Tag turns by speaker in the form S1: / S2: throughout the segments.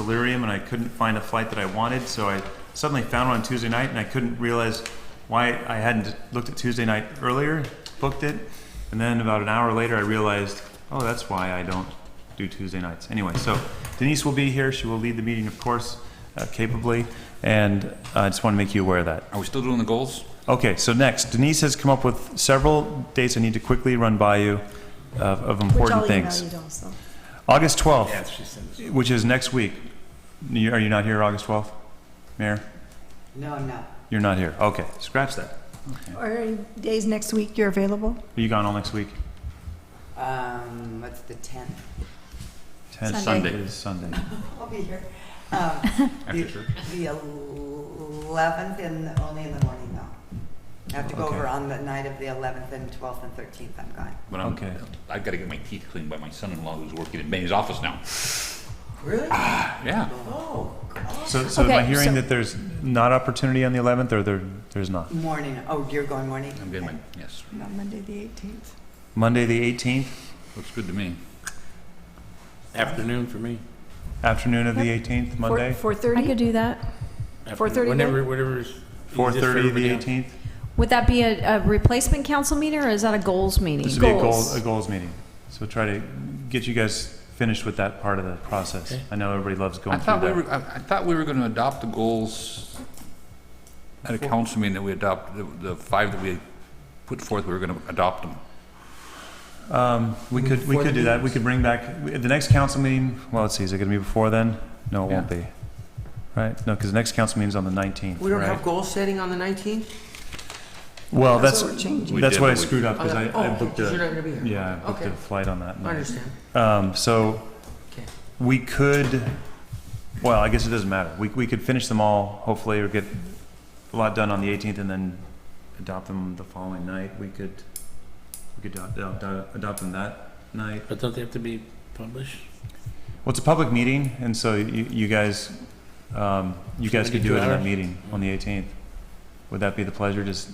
S1: delirium and I couldn't find a flight that I wanted. So I suddenly found one on Tuesday night and I couldn't realize why I hadn't looked at Tuesday night earlier, booked it. And then about an hour later, I realized, oh, that's why I don't do Tuesday nights. Anyway, so Denise will be here. She will lead the meeting, of course, uh, capably. And I just want to make you aware of that.
S2: Are we still doing the goals?
S1: Okay, so next, Denise has come up with several dates I need to quickly run by you of, of important things.
S3: Which I'll email you also.
S1: August 12th. Which is next week. You- Are you not here August 12th, Mayor?
S4: No, I'm not.
S1: You're not here. Okay, scratch that.
S3: Are any days next week you're available?
S1: Are you gone all next week?
S4: Um, what's the tenth?
S1: 10th
S2: Sunday.
S1: It is Sunday.
S4: I'll be here. Um, the- The eleventh and, only in the morning though. I have to go
S1: Okay.
S4: over on the night of the eleventh and twelfth and thirteenth, I'm gone.
S2: But I'm,
S1: Okay.
S2: I've got to get my teeth cleaned by my son-in-law who's working in Benny's office now.
S4: Really?
S2: Yeah.
S4: Oh, God.
S1: So, so am I
S5: Okay,
S1: hearing
S5: so-
S1: that there's not opportunity on the 11th, or there, there's not?
S4: Morning, oh, you're going morning?
S2: I'm getting my, yes,
S3: No, Monday, the 18th.
S1: Monday, the 18th,
S2: looks good to me.
S6: Afternoon for me.
S1: afternoon of the 18th, Monday?
S5: I
S3: 4:30?
S5: could do that.
S6: Afternoon.
S3: 4:30
S6: Whenever, whatever is. easiest for
S1: 4:30 of
S6: everybody
S1: the
S6: else.
S1: 18th?
S5: Would that be a, a replacement council meeting or is that a goals meeting?
S1: This would be a goals, a goals meeting. So try to get you guys finished with that part of the process.
S6: Okay.
S1: I know everybody loves
S2: I
S1: going through
S2: thought we
S1: that.
S2: were, I, I thought we were going to adopt the goals at a council meeting that we adopt, the, the five that we put forth, we were going to adopt them.
S1: Um, we could, we
S6: Before
S1: could
S6: the
S1: do that. We could bring back, the next council meeting, well, let's see, is it gonna be before then? No, it won't be. Right? No, because the next council meeting's on the nineteenth,
S7: We don't have
S1: right?
S7: goal setting on the 19th?
S1: Well, that's,
S3: So we're changing.
S2: We
S1: that's
S2: did,
S1: what I
S2: but we-
S1: screwed up, because I, I
S7: Oh,
S1: booked
S7: You're
S1: a,
S7: not going to be here?
S1: yeah, I booked
S7: Okay.
S1: a flight on that.
S7: I
S1: night.
S7: understand.
S1: Um, so,
S7: Okay.
S1: we could, well, I guess it doesn't matter. We, we could finish them all, hopefully, or get a lot done on the 18th and then adopt them the following night. We could, we could adopt, adopt, adopt them that night.
S6: But don't they have to be published?
S1: Well, it's a public meeting, and so you, you guys, um, you
S6: Should we
S1: guys could
S6: do
S1: do it
S6: two
S1: in that
S6: hours?
S1: meeting on the 18th. Would that be the pleasure? Just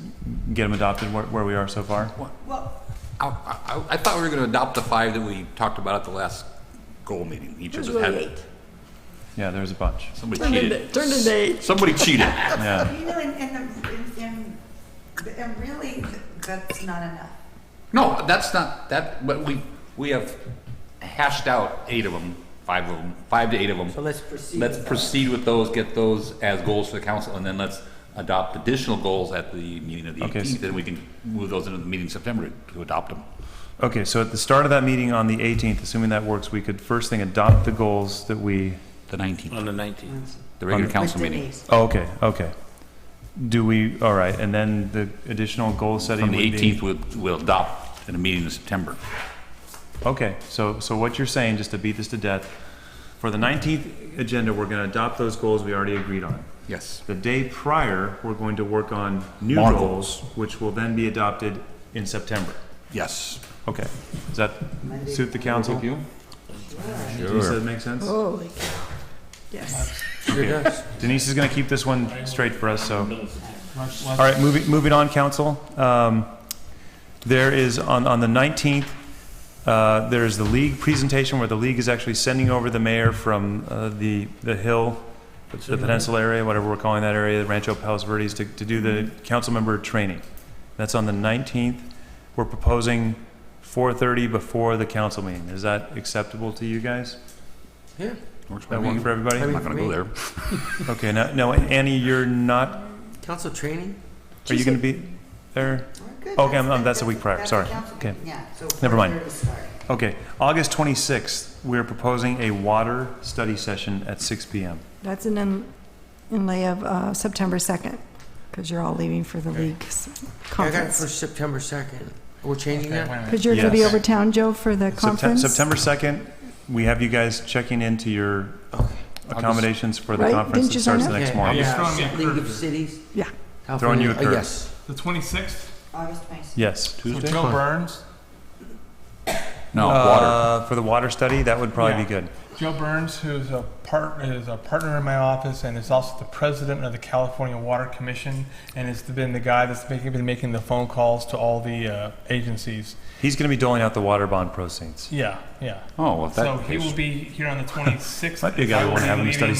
S1: get them adopted where, where we are so far?
S4: Well,
S2: I, I, I thought we were going to adopt the five that we talked about at the last goal meeting. Each
S3: There's
S2: of us had
S3: really eight.
S1: Yeah, there's a bunch.
S2: Somebody
S3: Turned
S2: cheated.
S3: into, turned into eight.
S2: Somebody cheated.
S1: Yeah.
S4: you know, and, and, the- and- and, and really, that's not enough.
S2: No, that's not, that, but we, we have hashed out eight of them, five of them, five to eight of them.
S4: So let's proceed.
S2: Let's
S4: with that.
S2: proceed with those, get those as goals for the council, and then let's adopt additional goals at the meeting of the
S1: Okay,
S2: 18th,
S1: so-
S2: and we can move those into the meeting in September to adopt them.
S1: Okay, so at the start of that meeting on the 18th, assuming that works, we could first thing adopt the goals that we,
S2: The 19th,
S6: On the 19th.
S2: the regular
S1: With
S2: council
S4: With
S2: meeting.
S4: Denise.
S1: oh, okay, okay. Do we, all right, and then the additional goal setting
S2: From
S1: would
S2: the
S1: be?
S2: 18th, we'll, we'll adopt in a meeting in September.
S1: Okay, so, so what you're saying, just to beat this to death, for the 19th agenda, we're going to adopt those goals we already agreed on.
S2: Yes.
S1: The day prior, we're going to work on new
S2: More
S1: goals, which will then be adopted in September.
S2: Yes.
S1: Okay, does that suit the council? Does that make sense?
S3: Holy cow. Yes.
S1: Okay. Denise is going to keep this one straight for us, so. All right, moving, moving on, council. Um, There is, on, on the 19th, uh, there is the league presentation where the league is actually sending over the mayor from uh, the, the hill, the peninsula area, whatever we're calling that area, Rancho Palos Verdes, to, to do the council member training. That's on the 19th. We're proposing 4:30 before the council meeting. Is that acceptable to you guys?
S7: Yeah.
S2: Works for
S1: That work
S2: me.
S1: for everybody?
S2: I'm not going to go there.
S1: Okay, now, now, Annie, you're not,
S7: Council training?
S1: are you gonna be there?
S4: We're good.
S1: Okay, I'm- I'm- that's a
S4: the-
S1: week prior.
S4: that's the
S1: Sorry.
S4: council-
S1: Okay.
S4: Yeah, so.
S1: Never mind.
S4: we're sorry.
S1: Okay, August 26th, we're proposing a water study session at 6 PM.
S3: That's an in- inlay of uh, September 2nd, because you're all leaving for the league's
S7: I got it for
S3: conference.
S7: September 2nd. We're changing that?
S3: Because you're going to be
S1: Yes.
S3: over town, Joe, for the
S1: Septem-
S3: conference?
S1: September 2nd, we have you guys checking into your accommodations for the
S3: Right,
S1: conference
S3: didn't
S1: that
S3: you sign
S1: starts the
S3: up?
S1: next
S7: Okay.
S1: morning.
S7: Yeah. League of Cities?
S3: Yeah.
S1: Throwing you a
S7: California-
S1: curve.
S7: uh, Yes.
S8: The 26th,
S4: August 26th.
S1: Yes.
S8: for
S1: Tuesday?
S8: Joe Burns.
S2: No, water.
S1: For the water study, that would probably be good.
S8: Joe Burns, who's a part, is a partner in my office and is also the president of the California Water Commission, and has been the guy that's making, been making the phone calls to all the uh, agencies.
S1: He's going to be doling out the water bond proceeds.
S8: Yeah, yeah.
S2: Oh, well, if that
S8: so he
S2: case-
S8: will be here on the 26th.
S1: Might be a guy we
S8: I will
S1: wanna
S8: be
S1: have him
S8: leaving
S1: study